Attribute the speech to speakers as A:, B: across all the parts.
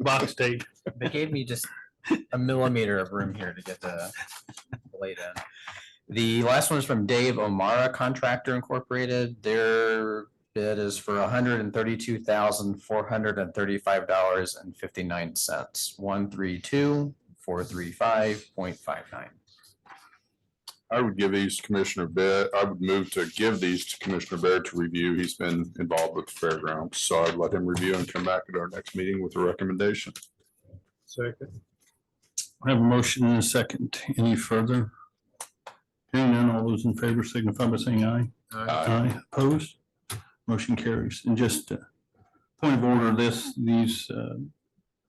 A: box tape.
B: They gave me just a millimeter of room here to get the blade in. The last one is from Dave Omara Contractor Incorporated. Their bid is for hundred and thirty-two thousand, four hundred and thirty-five dollars and fifty-nine cents. One, three, two, four, three, five, point five nine.
C: I would give these to Commissioner Bear, I would move to give these to Commissioner Bear to review. He's been involved with the fairgrounds, so I'd let him review and come back at our next meeting with a recommendation.
A: Second.
D: I have a motion and a second. Any further? Hearing none, all those in favor signify by saying aye.
C: Uh,
D: Aye. Opposed? Motion carries. And just uh, point of order, this, these, uh,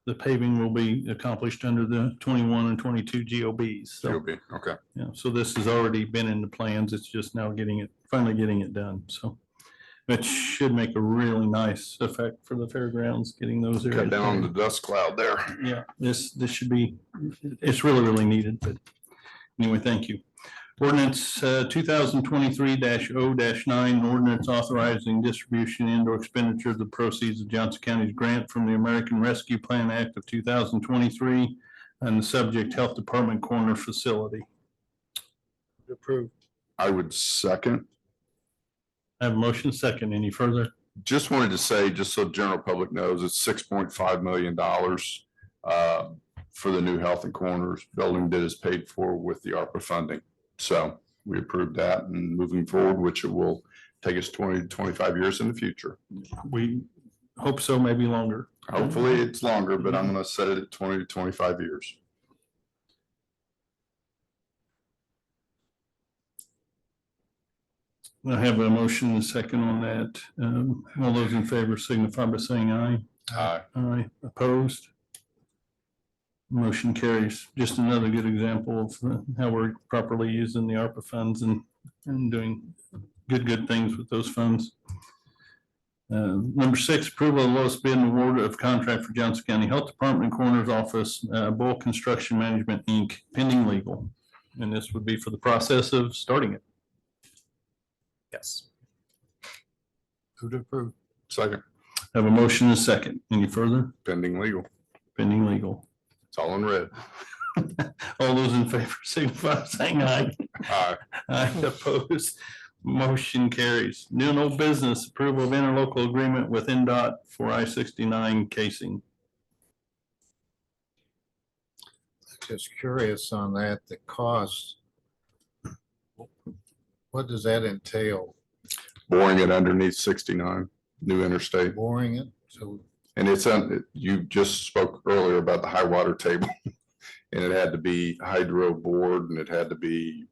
D: the paving will be accomplished under the twenty-one and twenty-two GOBs.
C: You'll
D: So,
C: be, okay.
D: yeah, so this has already been in the plans. It's just now getting it, finally getting it done. So that should make a really nice effect for the fairgrounds, getting those areas.
C: Cut down on
D: paved.
C: the dust cloud there.
D: Yeah, this, this should be, it's really, really needed, but anyway, thank you. Ordinance uh, two thousand twenty-three 0 nine, ordinance authorizing distribution and or expenditure of the proceeds of Johnson County's grant from the American Rescue Plan Act of two thousand twenty-three and the subject Health Department Corner Facility.
A: Approved.
C: I would second.
D: I have a motion second. Any further?
C: Just wanted to say, just so general public knows, it's six point five million dollars uh, for the new health and corners building that is paid for with the ARPA funding. So we approved that and moving forward, which it will take us 20 to 25 years in the future.
D: We hope so, maybe longer.
C: Hopefully, it's longer, but I'm gonna set it at twenty to twenty-five years.
D: I have a motion and second on that. Um, All those in favor signify by saying aye.
C: Aye.
D: Aye, opposed? Motion carries. Just another good example of uh, how we're properly using the ARPA funds and, and doing good, good things with those funds. Uh, Number six, approval of lowest bid and award of contract for Johnson County Health Department Coroner's Office, uh, Bull Construction Management, Inc., pending legal. And this would be for the process of starting it.
B: Yes.
A: Who to approve?
C: Second,
D: Have a motion and a second. Any further?
C: pending legal.
D: Pending legal.
C: It's all in red.
D: All those in favor, signify by saying aye.
C: Aye.
D: I oppose. Motion carries. New and old business approval of interlocal agreement with NDOT for I sixty-nine casing.
A: Just curious on that, the cost. What does that entail?
C: Boring it underneath sixty-nine, new interstate.
A: Boring it? So
C: And it's, on. you just spoke earlier about the high water table. And it had to be hydro board and it had to be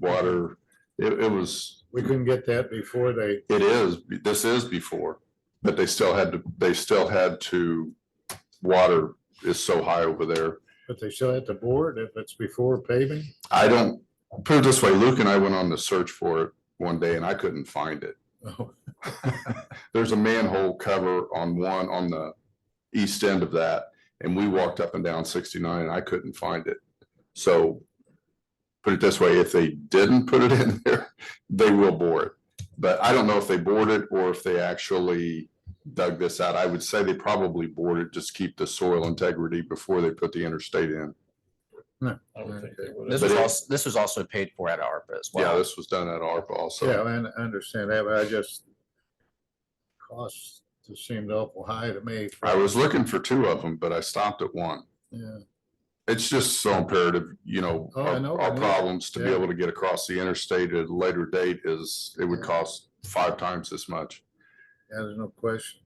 C: water. It, it was,
A: we couldn't get that before they,
C: it is, this is before, but they still had to, they still had to, water is so high over there.
A: but they still had to board if it's before paving?
C: I don't, put it this way, Luke and I went on the search for it one day and I couldn't find it.
A: Oh,
C: There's a manhole cover on one, on the east end of that, and we walked up and down sixty-nine and I couldn't find it. So put it this way, if they didn't put it in there, they will bore it. But I don't know if they bored it or if they actually dug this out. I would say they probably bored it, just keep the soil integrity before they put the interstate in.
A: I would think they
B: This was also, this was also paid for at ARPA as
C: Yeah,
B: well.
C: this was done at ARPA also.
A: Yeah, I un- understand that, but I just. Costs just seemed awful high to me. for-
C: I was looking for two of them, but I stopped at one.
A: Yeah,
C: It's just so imperative, you know,
A: Oh, I
C: our,
A: know, I
C: our
A: know.
C: problems to be
A: Yeah.
C: able to get across the interstate at a later date is, it would
A: Yeah.
C: cost five times as much.
A: yeah, there's no question.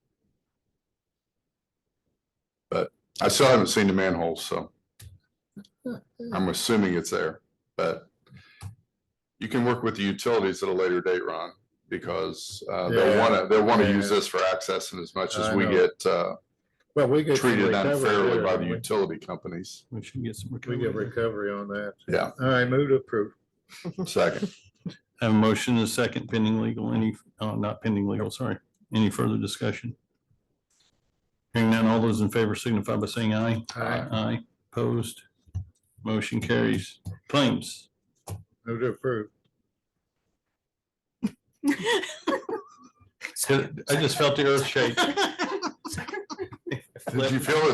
C: I still haven't seen the manhole, so I'm assuming it's there, but you can work with the utilities at a later date, Ron, because, uh, they
A: Yeah.
C: wanna, they wanna
A: Yeah.
C: use this for access and as much as
A: I
C: we
A: know.
C: get, uh,
A: Well, we get. some
C: treated
A: recovery
C: unfairly
A: there,
C: by the
A: don't we?
C: utility companies.
D: We should get some.
A: We
D: recovery.
A: get recovery on that.
C: Yeah,
A: All right, move to approve.
C: second.
D: Have a motion and a second pending legal, any, oh, not pending legal, sorry. Any further discussion? Hearing none, all those in favor signify by saying aye.
A: Aye.
D: Aye, opposed. Motion carries. Claims.
A: Move to approve.
D: I just felt the earth shake.
C: Did you feel it